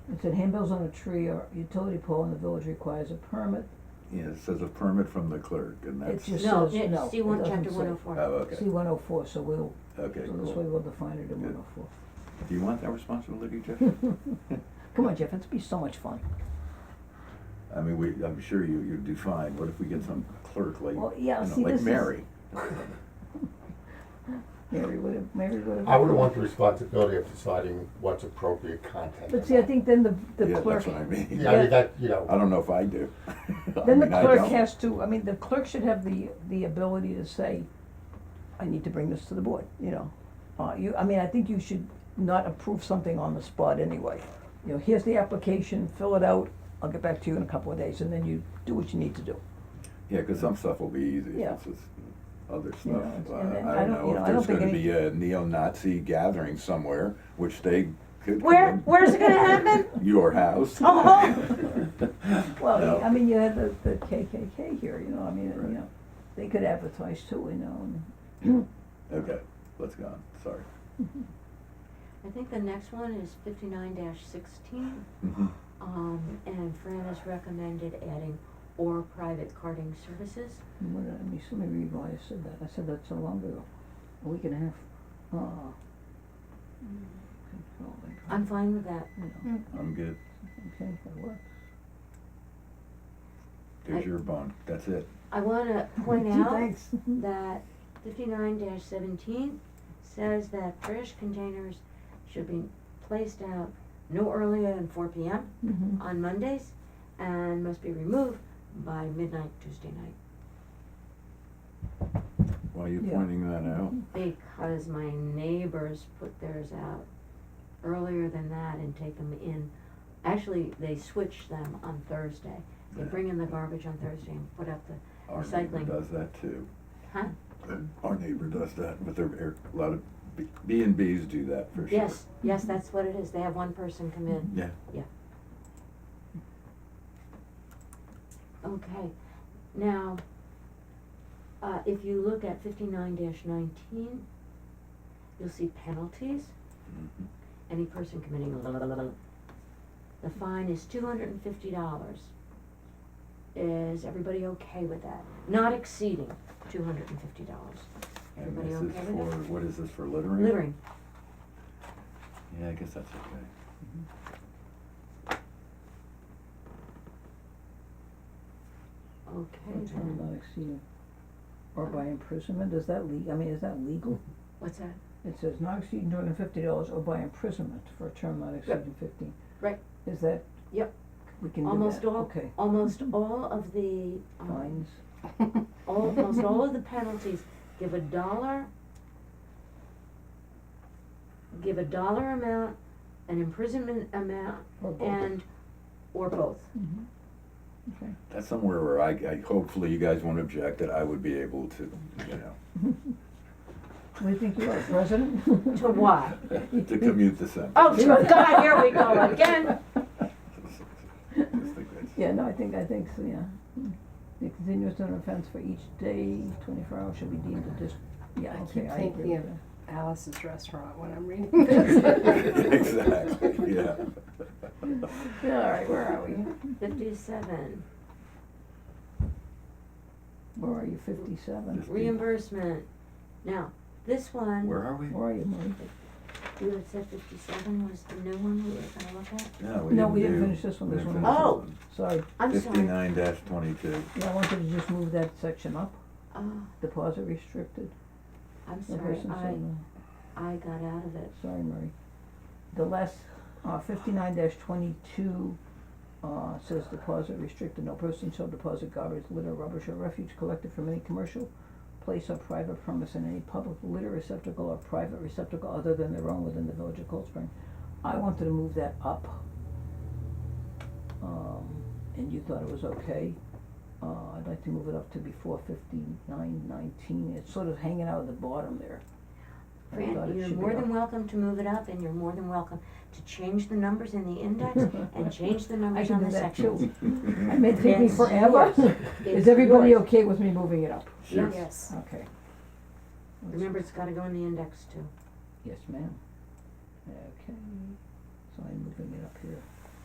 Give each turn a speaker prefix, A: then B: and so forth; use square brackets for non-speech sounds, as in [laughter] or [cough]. A: it said handbills on a tree or utility pole in the village requires a permit.
B: Yeah, it says a permit from the clerk, and that's,
A: It just
C: No,
A: says, no,
C: it's C
A: it
C: one,
A: doesn't
C: chapter
A: say.
C: one oh
B: oh,
C: four.
A: C
B: okay,
A: one oh four, so we'll,
B: okay,
A: so this way
B: cool.
A: we'll define it in
B: Good.
A: one oh four.
B: Do you want that responsibility, Jeff?
A: Hmm. Come on, Jeff, it's be so much fun.
B: I mean, we, I'm sure you, you'd do fine, what if we get some clerk like,
A: Well,
B: you
A: yeah,
B: know,
A: see,
B: like
A: this is-
B: Mary?
A: Mary would have, Mary would have.
D: I would want the responsibility of deciding what's appropriate content.
A: But see, I think then the, the
B: Yeah,
A: clerk,
B: that's what I mean.
D: Yeah, I mean, that, you know.
B: I don't know if I do. [laughs] I
A: then the
B: mean, I
A: clerk
B: don't.
A: has to, I mean, the clerk should have the, the ability to say, I need to bring this to the board, you know. Uh, you, I mean, I think you should not approve something on the spot anyway. You know, here's the application, fill it out, I'll get back to you in a couple of days, and then you do what you need to do.
B: Yeah, 'cause some stuff will be easy,
A: Yeah.
B: it's just other
A: You know,
B: stuff,
A: it's-
B: Uh,
A: and then
B: I don't
A: you
B: know if
A: I don't
B: there's
A: think
B: gonna
A: any-
B: be a neo-Nazi gathering somewhere, which they could.
C: Where,
B: commit.
C: where's it [laughs] gonna happen?
A: [laughs]
B: Your house. [laughs]
C: Oh.
A: Uh-huh. Well,
B: No.
A: I mean, you had the, the KKK here, you know, I mean,
B: Right.
A: you know, they could advertise too, you know, and.
B: Okay, let's go on, sorry.
C: I think the next one is fifty-nine sixteen,
B: Mhm.
C: um, and Fran has recommended adding or private carding services.
A: And What did I mean? Somebody read why I said that. I said that so long ago, a week and a half. Oh, control, like,
C: Mm-hmm. I'm fine Mm. with that.
A: Oh, you know,
B: I'm good,
A: Okay, that works.
B: there's
C: I-
B: your bond, that's it.
C: I wanna [laughs] point
A: Gee,
C: out
A: thanks. [laughs]
C: that fifty-nine seventeen says that trash containers should be placed out no earlier than four P M
A: Mhm.
C: on Mondays and must be removed by midnight Tuesday night.
B: Why are you
A: Yeah.
B: pointing that out?
C: Because my neighbors put theirs out earlier than that and take them in. Actually, they switch them on Thursday. They
B: Yeah.
C: bring in the garbage on Thursday and put out the,
B: Our neighbor
C: Recycling.
B: does that too.
C: huh?
B: Our neighbor does that, but there are a lot of B- B and Bs do that for sure.
C: Yes, yes, that's what it is. They have one person come in.
B: Yeah,
C: Okay, now, uh, if you look at fifty-nine nineteen, you'll see penalties.
B: Mhm.
C: Any person committing a The fine is two hundred and fifty dollars. Is everybody okay with that? Not exceeding two hundred and fifty dollars.
B: and
C: Everybody
B: this
C: okay
B: is
C: with
B: for,
C: that?
B: what is this, for littering?
C: Littering,
B: Yeah, I guess that's okay.
C: okay
A: That's what I'm
C: then.
A: not exceeding. Or by imprisonment, is that le- I mean, is that legal?
C: What's that?
A: It says not exceeding two hundred and fifty dollars or by imprisonment for a term not exceeding fifteen.
C: Right.
A: Is that?
C: Yep.
A: We can do that,
C: Almost all-
A: okay.
C: Almost all of the, um,
A: Fines,
C: almost all of the penalties give a dollar, give a dollar amount, an imprisonment amount,
A: or both.
C: and, or both.
A: Mhm. Okay.
B: That's somewhere where I, I, hopefully you guys won't object that I would be able to, you know,
A: What do you think you are, president?
C: [laughs]
A: [laughs]
C: To what?
B: to commute the sentence. [laughs]
C: Oh, sure, God, here we go again.
B: Just think that's-
A: Yeah, no, I think, I think, so, yeah. Mm. The continuous an offense for each day, twenty-four hours should be deemed a dis- yeah,
E: I
A: okay,
E: keep
A: I
E: thinking
A: agree
E: of-
A: with that.
E: Alice's restaurant when I'm reading this.
B: [laughs] Exactly, yeah.
A: Yeah, all right, where are we?
C: Fifty-seven,
A: Where are you, fifty-seven?
B: Just-
C: reimbursement. Now, this one,
B: Where are we?
A: Where are you, Marie?
C: you had said fifty-seven was the new one we were gonna look at?
B: No,
A: No, we didn't
B: do-
A: finish this one.
B: we
A: This
B: didn't
C: one-
B: finish
A: Sorry,
C: I'm
B: this one.
C: sorry.
B: Fifty-nine twenty-two.
A: yeah, I wanted to just move that section up,
C: Oh,
A: deposit restricted.
C: I'm
A: The
C: sorry,
A: person said
C: I,
A: no.
C: I got out of it.
A: Sorry, Marie. The last, uh, fifty-nine dash twenty-two, uh, says deposit restricted, no person shall deposit garbage, litter, rubbish, or refuse collected from any commercial place or private premise in any public litter receptacle or private receptacle other than their own within the village of Cold Spring. I wanted to move that up. Um, and you thought it was okay. Uh, I'd like to move it up to before fifty-nine nineteen, it's sort of hanging out at the bottom there. I thought it
C: Fran, you're
A: should be
C: more
A: up.
C: than welcome to move it up and you're more than welcome to change the numbers in the
A: [laughs]
C: index and change the
A: I
C: numbers
A: can
C: on
A: do
C: the
A: that
C: sections.
A: too. It may take me
C: It's
A: forever.
C: yours.
A: [laughs]
C: It's
A: Is everybody
C: yours.
A: okay with me moving it up?
B: Sure.
E: Yes.
A: Okay.
C: Remember, it's gotta go in the index too.
A: Yes, ma'am. Okay, so I'm moving it up here.